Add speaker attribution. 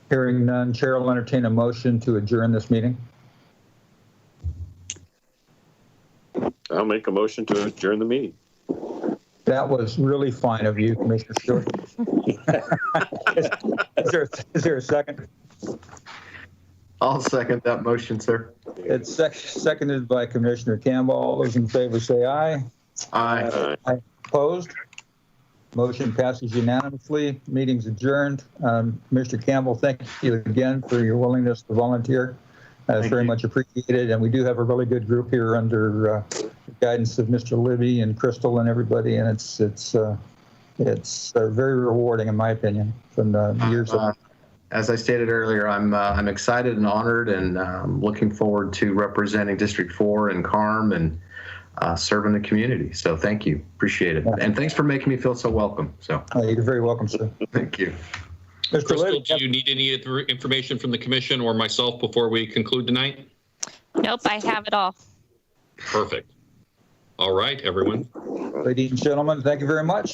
Speaker 1: Hearing none, Chair will entertain a motion to adjourn this meeting.
Speaker 2: I'll make a motion to adjourn the meeting.
Speaker 1: That was really fine of you, Commissioner Stewart. Is is there, is there a second?
Speaker 3: I'll second that motion, sir.
Speaker 1: It's sec- seconded by Commissioner Campbell. All those in favor say aye.
Speaker 3: Aye.
Speaker 2: Aye.
Speaker 1: Opposed? Motion passes unanimously. Meeting's adjourned. Um, Mr. Campbell, thank you again for your willingness to volunteer. Uh, It's
Speaker 3: Thank
Speaker 1: very
Speaker 3: you.
Speaker 1: much appreciated, and we do have a really good group here under uh, guidance of Mr. Libby and Crystal and everybody, and it's, it's, uh, it's uh, very rewarding, in my opinion, from the years of
Speaker 3: Uh, As I stated earlier, I'm, uh, I'm excited and honored and um, looking forward to representing District 4 and CARM and uh, serving the community. So thank you. Appreciate it. And thanks for making me feel so welcome. So
Speaker 1: Uh, You're very welcome, sir.
Speaker 3: thank you.
Speaker 1: Mr.
Speaker 4: Crystal,
Speaker 1: Libby,
Speaker 4: do you need any of the information from the commission or myself before we conclude tonight?
Speaker 5: Nope, I have it all.
Speaker 4: Perfect. All right, everyone.
Speaker 1: ladies and gentlemen, thank you very much.